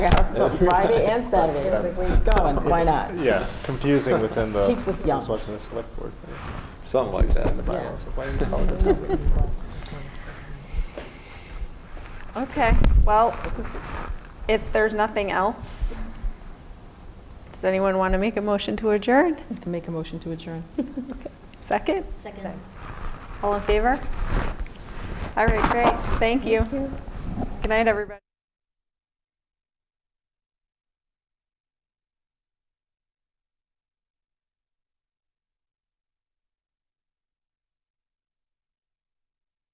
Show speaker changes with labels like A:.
A: So Friday and Saturday, we're going, why not?
B: Yeah, confusing within the.
A: Keeps us young.
B: who's watching the select board.
C: Something like that.
B: In the bylaws, why do you call it a town meeting?
D: Okay, well, if there's nothing else, does anyone want to make a motion to adjourn?
A: Make a motion to adjourn.
D: Second?
E: Second.
D: All in favor? All right, great, thank you. Good night, everybody.